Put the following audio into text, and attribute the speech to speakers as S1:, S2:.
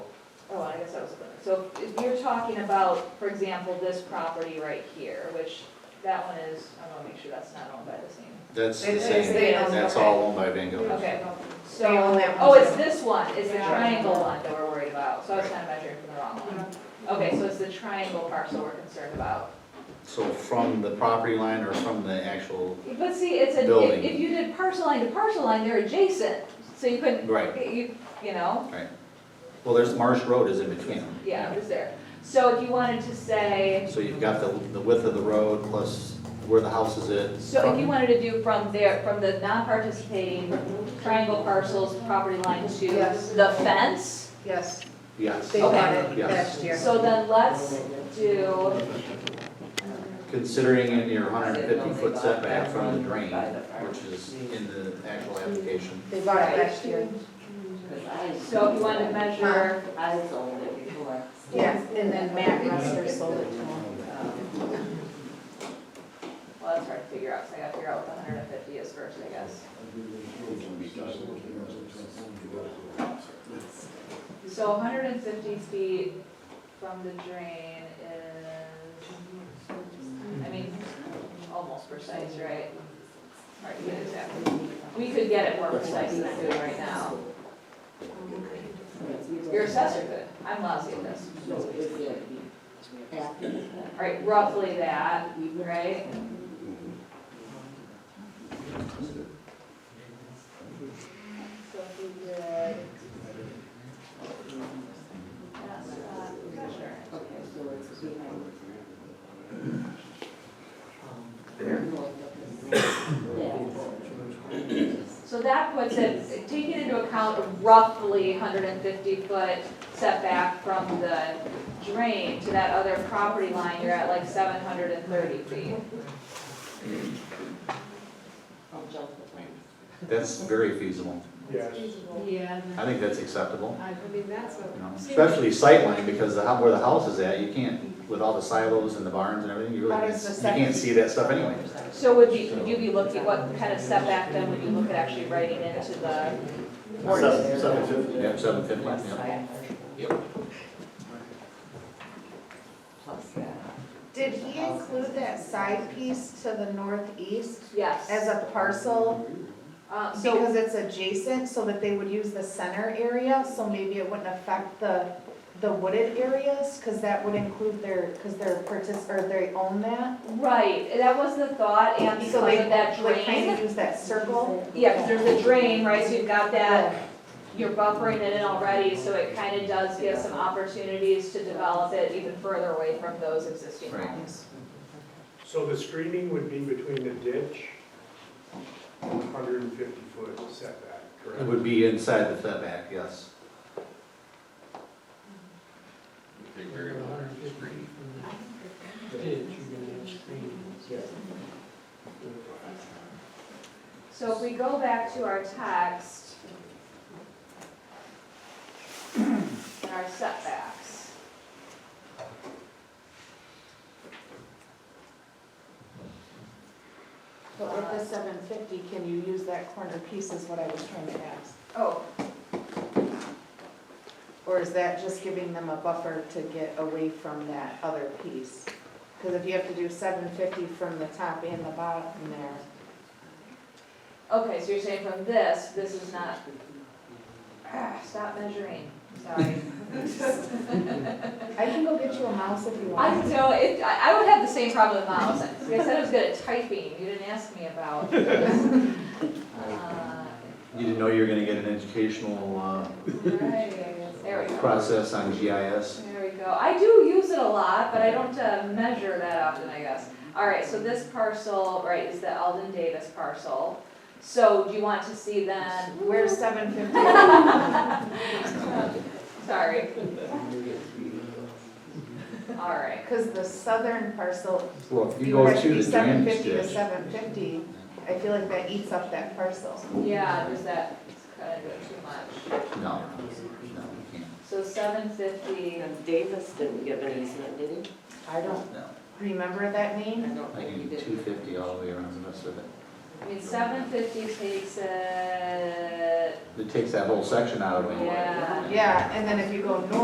S1: guess Oh, I was, so if you're talking about, for example, this property right here, which that one is, I wanna make sure that's not owned by the same.
S2: That's the
S3: It's-
S1: it's
S2: same,
S1: theirs,
S2: that's
S3: okay.
S2: all owned by Van Gogh.
S1: Okay. So,
S3: They own that one
S1: oh, it's
S3: too.
S1: this one, it's the
S3: Yeah.
S1: triangle one that we're worried about, so I was kind of measuring from the wrong one.
S3: Mm-hmm.
S1: Okay, so it's the triangle parcel we're concerned about.
S2: So from the property line or from the actual,
S1: But see, it's a, if-
S2: Building.
S1: if you did parcel line to parcel line, they're adjacent, so you couldn't,
S2: Right.
S1: you, you know?
S2: right? Well, there's Marsh Road is in between them.
S1: Yeah, it was there. So if you wanted to say,
S2: So you've got the, the width of the road plus where the house is at.
S1: So if you wanted to do from there, from the non-participating triangle parcels property line to
S3: Yes.
S1: the fence,
S3: Yes,
S2: Yes,
S3: they bought it
S2: Yes.
S3: last year.
S1: so then let's do,
S2: considering in your hundred and fifty foot setback from the drain, which is in the actual application.
S3: They bought it last year.
S1: so if you wanted to measure,
S4: I sold it before.
S3: Yeah, and then Matt Ruster sold it to him.
S1: well, it's hard to figure out, so I gotta figure out what the hundred and fifty is first, I guess. So hundred and fifty feet from the drain is, I mean, almost precise, right? Hard to get exactly. We could get it more precise than we do right now. Your assessor could, I'm lousy at this.
S4: So is it happy?
S1: All right, roughly that, right? So if we did. That's, uh, pressure.
S4: Okay, so it's behind. Yeah.
S1: So that puts it, taking into account a roughly hundred and fifty foot setback from the drain to that other property line, you're at like seven hundred and thirty feet.
S4: I'll jump the fence.
S2: That's very feasible.
S5: Yes.
S6: Yeah,
S2: I think that's acceptable,
S6: I I mean, that's what.
S2: you know, especially sightline because the, hou- where the house is at, you can't, with all the silos and the barns and everything, you really,
S3: How
S2: can't-
S3: does the
S2: you can't
S3: septic-
S2: see that stuff anyway.
S1: So would you, would you be looking, what kind of setback then would you look at actually writing into the ordinance?
S5: Seven fifty.
S2: Yep, seven fifty,
S4: Plus
S2: yep.
S4: that.
S2: Yep.
S4: Plus that.
S3: Did he include that side piece to the northeast as
S1: Yes.
S3: a parcel?
S1: Uh, so,
S3: Because it's adjacent, so that they would use the center area, so maybe it wouldn't affect the, the wooded areas? Because that would include their, because they're partic, or they own that?
S1: right, that was the thought, and because
S3: So
S1: of
S3: they
S1: that
S3: Like, kind of
S1: drain.
S3: use that circle?
S1: Yeah, because there's a drain, right, so you've got that you're buffering it in already, so it kind of does give some opportunities to develop it even further away from those existing
S2: Right.
S1: homes.
S5: So the screening would be between the ditch and 150 foot setback,
S2: It
S5: correct?
S2: would be inside the setback, yes.
S7: They very well are screened.
S5: Yeah.
S1: So if we go back to our text, and our setbacks.
S3: But with the seven fifty, can you use that corner piece is what I was trying to ask?
S1: Oh,
S3: Or is that just giving them a buffer to get away from that other piece? Because if you have to do seven fifty from the top and the bottom there,
S1: okay, so you're saying from this, this is not, ah, stop measuring, sorry.
S3: I can go get you a mouse if you
S1: I
S3: want.
S1: don't know, it, I, I would have the same problem with mouse, I said I was good at typing, you didn't ask me about. Uh,
S2: You didn't know you were gonna get an educational, uh,
S1: Right, There we go.
S2: process on GIS.
S1: There we go. I do use it a lot, but I don't uh, measure that often, I guess. All right, so this parcel, right, is the Alden Davis parcel. So do you want to see then,
S3: Where's seven fifty?
S1: sorry. All right,
S3: Because the southern parcel,
S2: Well, if
S3: if
S2: you
S3: you
S2: go
S3: have
S2: to
S3: to
S2: the
S3: be seven
S2: drainage
S3: fifty to
S2: ditch,
S3: seven fifty, I feel like that eats up that parcel.
S1: yeah, does that cut into it too much?
S2: no, no, you can't,
S1: So seven fifty,
S4: And Davis didn't give an easement, did he?
S3: I don't
S2: no.
S3: remember that
S4: I
S3: name.
S4: don't
S2: I
S4: think he
S2: can do
S4: did.
S2: two fifty all the way around the rest of it.
S1: I mean, seven fifty takes it,
S2: It takes that whole section out of it.
S1: Yeah.
S3: Yeah, and then if you go north.